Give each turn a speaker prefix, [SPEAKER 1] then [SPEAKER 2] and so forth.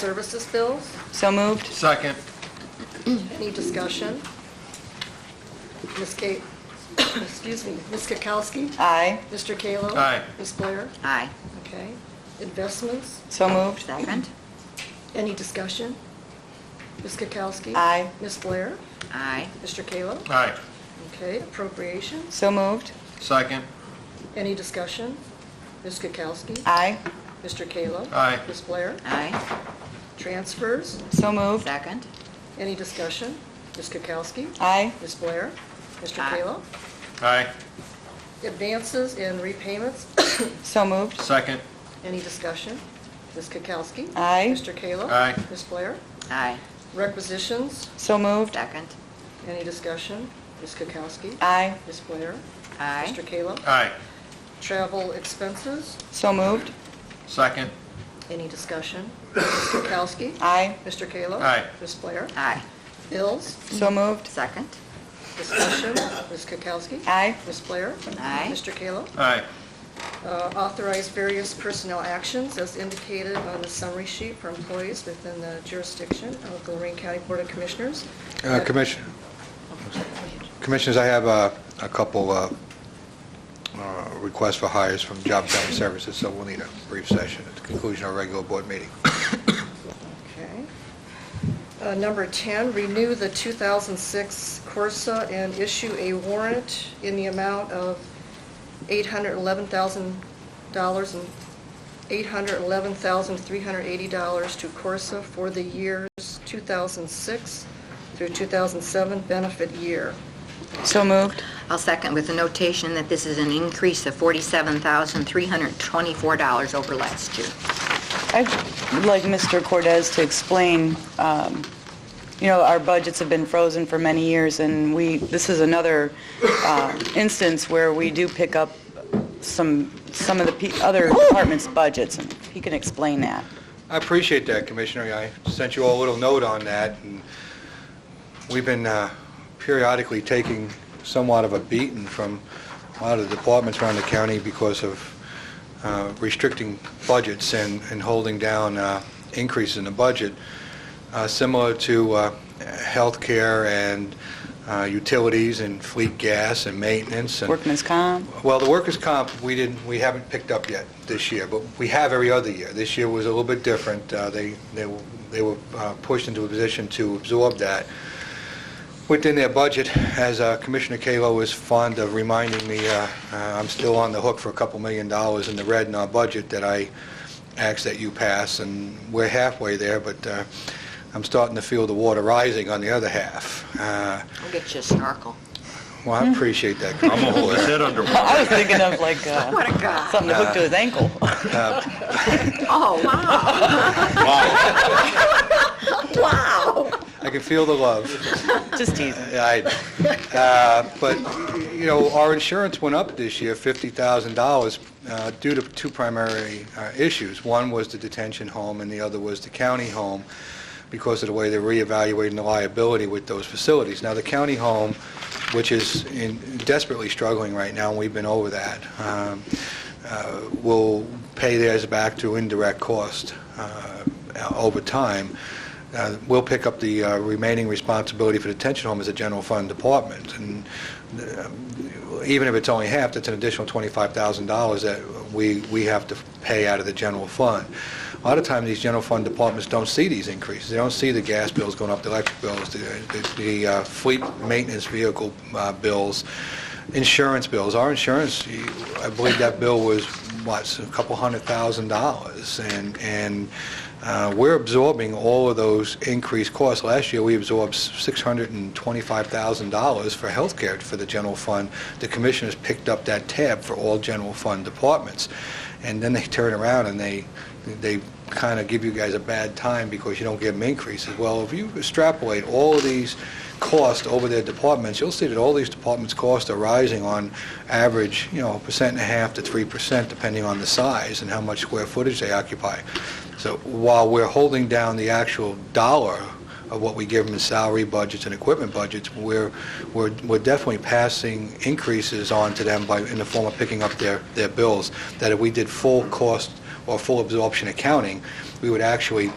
[SPEAKER 1] services bills.
[SPEAKER 2] So moved.
[SPEAKER 3] Second.
[SPEAKER 1] Any discussion? Ms. Kate, excuse me, Ms. Kukowski?
[SPEAKER 2] Aye.
[SPEAKER 1] Mr. Kallo?
[SPEAKER 3] Aye.
[SPEAKER 1] Ms. Blair?
[SPEAKER 4] Aye.
[SPEAKER 1] Okay. Investments,
[SPEAKER 2] So moved.
[SPEAKER 4] Second.
[SPEAKER 1] any discussion? Ms. Kukowski?
[SPEAKER 2] Aye.
[SPEAKER 1] Ms. Blair?
[SPEAKER 4] Aye.
[SPEAKER 1] Mr. Kallo?
[SPEAKER 3] Aye.
[SPEAKER 1] Okay. Appropriations,
[SPEAKER 2] So moved.
[SPEAKER 3] Second.
[SPEAKER 1] any discussion? Ms. Kukowski?
[SPEAKER 2] Aye.
[SPEAKER 1] Mr. Kallo?
[SPEAKER 3] Aye.
[SPEAKER 1] Ms. Blair?
[SPEAKER 4] Aye.
[SPEAKER 1] Transfers,
[SPEAKER 2] So moved.
[SPEAKER 4] Second.
[SPEAKER 1] any discussion? Ms. Kukowski?
[SPEAKER 2] Aye.
[SPEAKER 1] Ms. Blair? Mr.
[SPEAKER 4] Aye.
[SPEAKER 1] Kallo?
[SPEAKER 3] Aye.
[SPEAKER 1] Advances and repayments,
[SPEAKER 2] So moved.
[SPEAKER 3] Second.
[SPEAKER 1] any discussion? Ms. Kukowski?
[SPEAKER 2] Aye.
[SPEAKER 1] Mr. Kallo?
[SPEAKER 3] Aye.
[SPEAKER 1] Ms. Blair?
[SPEAKER 4] Aye.
[SPEAKER 1] Requisitions,
[SPEAKER 2] So moved.
[SPEAKER 4] Second.
[SPEAKER 1] any discussion? Ms. Kukowski?
[SPEAKER 2] Aye.
[SPEAKER 1] Ms. Blair?
[SPEAKER 4] Aye.
[SPEAKER 1] Mr. Kallo?
[SPEAKER 3] Aye.
[SPEAKER 1] Travel expenses,
[SPEAKER 2] So moved.
[SPEAKER 3] Second.
[SPEAKER 1] any discussion? Ms. Kukowski?
[SPEAKER 2] Aye.
[SPEAKER 1] Mr. Kallo?
[SPEAKER 3] Aye.
[SPEAKER 1] Ms. Blair?
[SPEAKER 4] Aye.
[SPEAKER 1] Bills,
[SPEAKER 2] So
[SPEAKER 4] Mm-hmm.
[SPEAKER 2] moved.
[SPEAKER 4] Second.
[SPEAKER 1] discussion? Ms. Kukowski?
[SPEAKER 2] Aye.
[SPEAKER 1] Ms. Blair?
[SPEAKER 4] Aye.
[SPEAKER 1] Mr. Kallo?
[SPEAKER 3] Aye.
[SPEAKER 1] Uh, Authorize various personnel actions as indicated on the summary sheet for employees within the jurisdiction of the Lorraine County Board of Commissioners.
[SPEAKER 5] Uh, Commissioner, Commissioners, I have uh, a couple uh, uh, requests for hires from Job and Family Services, so we'll need a brief session at the conclusion of our regular board meeting.
[SPEAKER 1] Okay. Uh, Number 10, renew the 2006 Corsa and issue a warrant in the amount of $811,000 and $811,380 to Corsa for the years 2006 through 2007 benefit year.
[SPEAKER 2] So moved.
[SPEAKER 4] I'll second with the notation that this is an increase of $47,324 over last year.
[SPEAKER 2] I'd like Mr. Cortez to explain, um, you know, our budgets have been frozen for many years, and we, this is another uh, instance where we do pick up some, some of the pe- other departments' budgets, and he can explain that.
[SPEAKER 5] I appreciate that, Commissioner. I sent you all a little note on that, and we've been uh, periodically taking somewhat of a beating from a lot of the departments around the county because of uh, restricting budgets and and holding down uh, increases in the budget, uh, similar to uh, healthcare and uh, utilities and fleet gas and maintenance and...
[SPEAKER 2] Workman's comp?
[SPEAKER 5] Well, the workers' comp, we didn't, we haven't picked up yet this year, but we have every other year. This year was a little bit different. Uh, They, they were- they were uh, pushed into a position to absorb that within their budget. As uh, Commissioner Kalo is fond of reminding me, uh, uh, I'm still on the hook for a couple million dollars in the red in our budget that I asked that you pass, and we're halfway there, but uh, I'm starting to feel the water rising on the other half. Uh,
[SPEAKER 4] I'll get you a snorkel.
[SPEAKER 5] Well, I appreciate that.
[SPEAKER 3] I'm gonna hold his head under water.
[SPEAKER 2] I was thinking of like uh,
[SPEAKER 4] What a guy.
[SPEAKER 2] something to hook to his ankle.
[SPEAKER 4] Oh, wow.
[SPEAKER 5] I can feel the love.
[SPEAKER 2] Just teasing.
[SPEAKER 5] I, uh, but, you know, our insurance went up this year, $50,000, uh, due to two primary uh, issues. One was the detention home, and the other was the county home, because of the way they're reevaluating the liability with those facilities. Now, the county home, which is in- desperately struggling right now, and we've been over that, um, uh, will pay theirs back through indirect cost uh, over time. Uh, We'll pick up the uh, remaining responsibility for the detention home as a general fund department, and uh, even if it's only half, that's an additional $25,000 that we we have to pay out of the general fund. A lot of times, these general fund departments don't see these increases. They don't see the gas bills going up, the electric bills, the- the- the uh, fleet maintenance vehicle uh, bills, insurance bills. Our insurance, you- I believe that bill was, what, a couple hundred thousand dollars, and and uh, we're absorbing all of those increased costs. Last year, we absorbed $625,000 for healthcare for the general fund. The commissioners picked up that tab for all general fund departments. And then they turn around and they, they kind of give you guys a bad time because you don't give them increases. Well, if you extrapolate all of these costs over their departments, you'll see that all these departments' costs are rising on average, you know, a percent and a half to 3%, depending on the size and how much square footage they occupy. So while we're holding down the actual dollar of what we give them in salary budgets and equipment budgets, we're, we're we're definitely passing increases on to them by, in the form of picking up their, their bills, that if we did full cost or full absorption accounting, we would actually